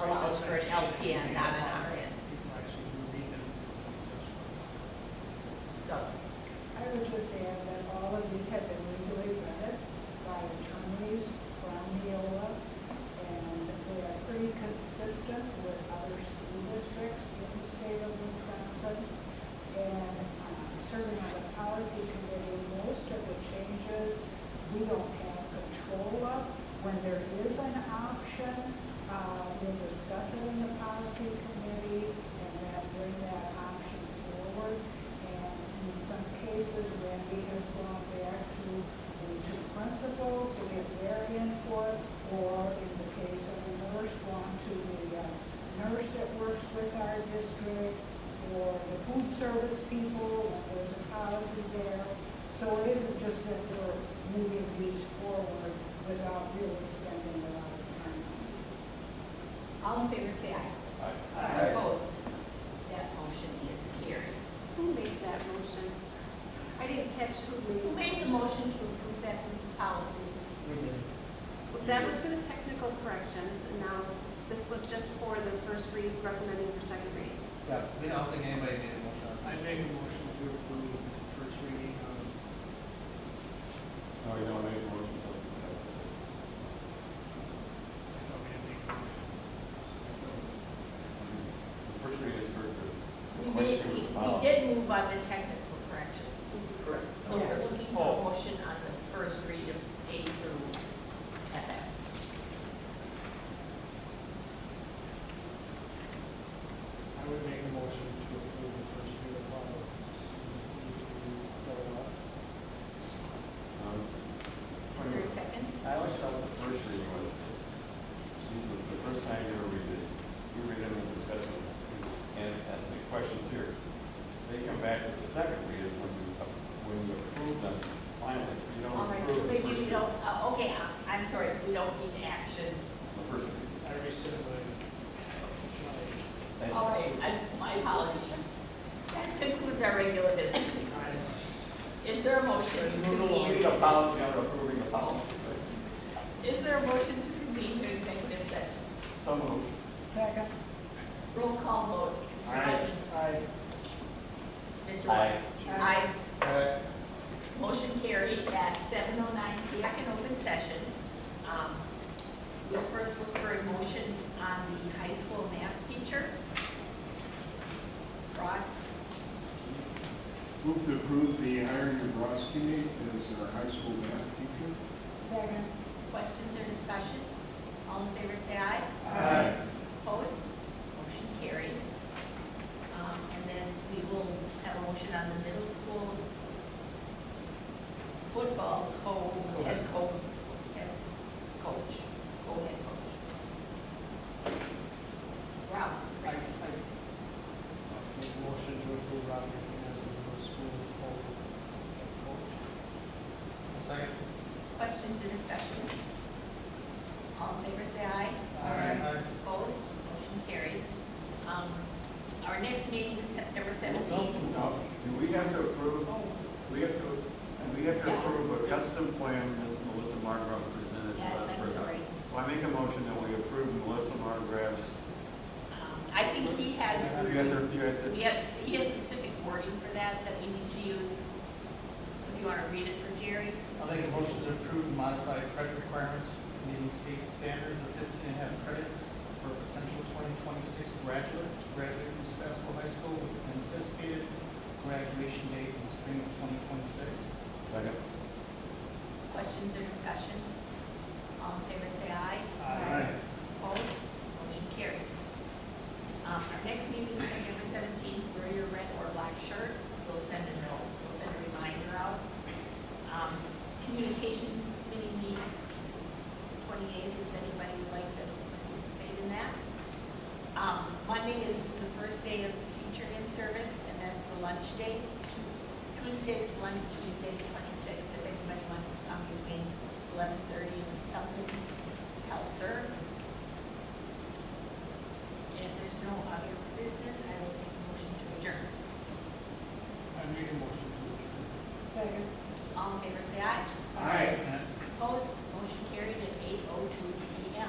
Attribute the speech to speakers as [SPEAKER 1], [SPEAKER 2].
[SPEAKER 1] allows for an LPN, not an RN, so.
[SPEAKER 2] I would just add that all of these have been legally vetted by attorneys from Neola, and they are pretty consistent with other school districts in the state of Wisconsin. And um, serving on the policy committee, most of the changes we don't have control of. When there is an option, uh, we discuss it in the policy committee, and then bring that option forward. And in some cases, Randy has gone back to the two principals to get their input, or in the case of a nurse, gone to the uh, nurse that works with our district, or the food service people, when there's a policy there. So it isn't just that we're moving these forward without really spending a lot of time.
[SPEAKER 1] All in favor, say aye.
[SPEAKER 3] Aye.
[SPEAKER 1] Opposed? That motion is carried.
[SPEAKER 4] Who made that motion? I didn't catch who made.
[SPEAKER 1] Who made the motion to approve that policies?
[SPEAKER 4] That was for the technical corrections, and now this was just for the first read, recommending for second read.
[SPEAKER 3] Yeah, we don't think anybody made a motion on
[SPEAKER 5] I
[SPEAKER 3] that.
[SPEAKER 5] make a motion to approve the first reading of,
[SPEAKER 6] No, you don't Oh, make a motion.
[SPEAKER 5] I don't mean to make a motion.
[SPEAKER 1] We
[SPEAKER 6] First reading is first reading.
[SPEAKER 1] made, we we did move on the technical corrections.
[SPEAKER 3] Correct.
[SPEAKER 1] So we're looking for
[SPEAKER 6] Oh.
[SPEAKER 1] a motion on the first read of A through FF.
[SPEAKER 5] I would make a motion to approve the first reading of all of these. Go up.
[SPEAKER 6] Um,
[SPEAKER 1] Is there a second?
[SPEAKER 3] I always thought,
[SPEAKER 6] The first reading was, excuse me, the first time you ever read it, you read them and discuss them and ask the questions here. They come back with the second read is when you, when you approve them finally. You don't
[SPEAKER 1] All right, so
[SPEAKER 6] approve the
[SPEAKER 1] maybe
[SPEAKER 6] first
[SPEAKER 1] we
[SPEAKER 6] read.
[SPEAKER 1] don't, uh, okay, I- I'm sorry, we don't need action.
[SPEAKER 6] The first read.
[SPEAKER 5] I rescind my,
[SPEAKER 6] Thank you.
[SPEAKER 1] All right, I- my apology. That concludes our regular business.
[SPEAKER 5] my, I,
[SPEAKER 1] Is there a motion? to
[SPEAKER 5] Move along.
[SPEAKER 6] We need
[SPEAKER 1] convene-
[SPEAKER 6] a policy on approving a policy.
[SPEAKER 1] Is there a motion to convene to executive session?
[SPEAKER 6] So moved.
[SPEAKER 2] Second,
[SPEAKER 1] Roll call vote. Mr.
[SPEAKER 6] Aye.
[SPEAKER 1] Riley?
[SPEAKER 5] I
[SPEAKER 1] Mr.
[SPEAKER 6] Aye.
[SPEAKER 1] White? Aye.
[SPEAKER 3] uh,
[SPEAKER 1] Motion carried at seven oh nine, back in open session. Um, We'll first look for a motion on the high school math teacher. Ross,
[SPEAKER 7] Move to approve the hiring of Ross Kinney as our high school math teacher.
[SPEAKER 2] second,
[SPEAKER 1] questions or discussion? All in favor, say aye. Uh,
[SPEAKER 3] Aye.
[SPEAKER 1] Opposed? Motion carried. Um, And then we will have a motion on the middle school football co-head co- head coach, co-head coach.
[SPEAKER 5] I, I
[SPEAKER 1] Rob,
[SPEAKER 5] make a motion to approve Rob Green as the middle school coach.
[SPEAKER 3] A second?
[SPEAKER 1] questions or discussion? All in favor, say aye. Opposed? Motion carried. Um, Our next meeting is September seventeenth.
[SPEAKER 6] Now, do we have to approve, we have to, and we have to approve a custom plan that Melissa Margraf presented to
[SPEAKER 1] Yes,
[SPEAKER 6] us.
[SPEAKER 1] I'm
[SPEAKER 6] for-
[SPEAKER 1] sorry.
[SPEAKER 6] So I make a motion that we approve Melissa Margraf's.
[SPEAKER 1] Um, I think he has.
[SPEAKER 6] You have to, you have to,
[SPEAKER 1] We have, he has specific wording for that that we need to use. If you want to read it for Jerry.
[SPEAKER 3] I'll make a motion to approve and modify credit requirements meeting state standards of fifteen and a half credits for a potential twenty twenty-six graduate to graduate from Sebastopol High School with an anticipated graduation date in spring of twenty twenty-six.
[SPEAKER 6] second.
[SPEAKER 1] Questions or discussion? All in favor, say aye. Opposed? Motion carried. Um, Our next meeting is September seventeenth. Wear your red or black shirt. We'll send a note, we'll send a reminder out. Um, Communication committee meets twenty-eighth. If anybody would like to participate in that. Um, Monday is the first day of teacher in service, and that's the lunch day. Tuesday's lunch, Tuesday the twenty-sixth, if anybody wants to come between eleven thirty and something oh